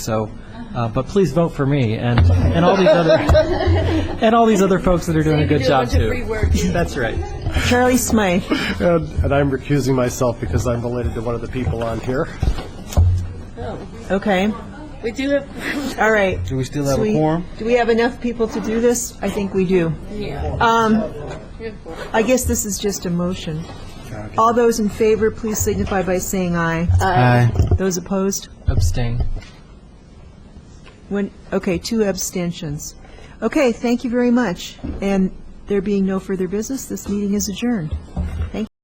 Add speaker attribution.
Speaker 1: So, uh, but please vote for me and, and all these other, and all these other folks that are doing a good job too. That's right.
Speaker 2: Charlie Smythe.
Speaker 3: And and I'm recusing myself because I'm related to one of the people on here.
Speaker 2: Okay.
Speaker 4: We do have,
Speaker 2: All right. Do
Speaker 5: we still have a
Speaker 2: we-
Speaker 5: quorum?
Speaker 2: Do we have enough people to do this? I think we do. Um, I guess this is just a motion. All those in favor, please signify by saying aye.
Speaker 5: Aye.
Speaker 2: Those opposed?
Speaker 1: Abstain.
Speaker 2: When, okay, two abstentions. Okay, thank you very much. And there being no further business, this meeting is adjourned.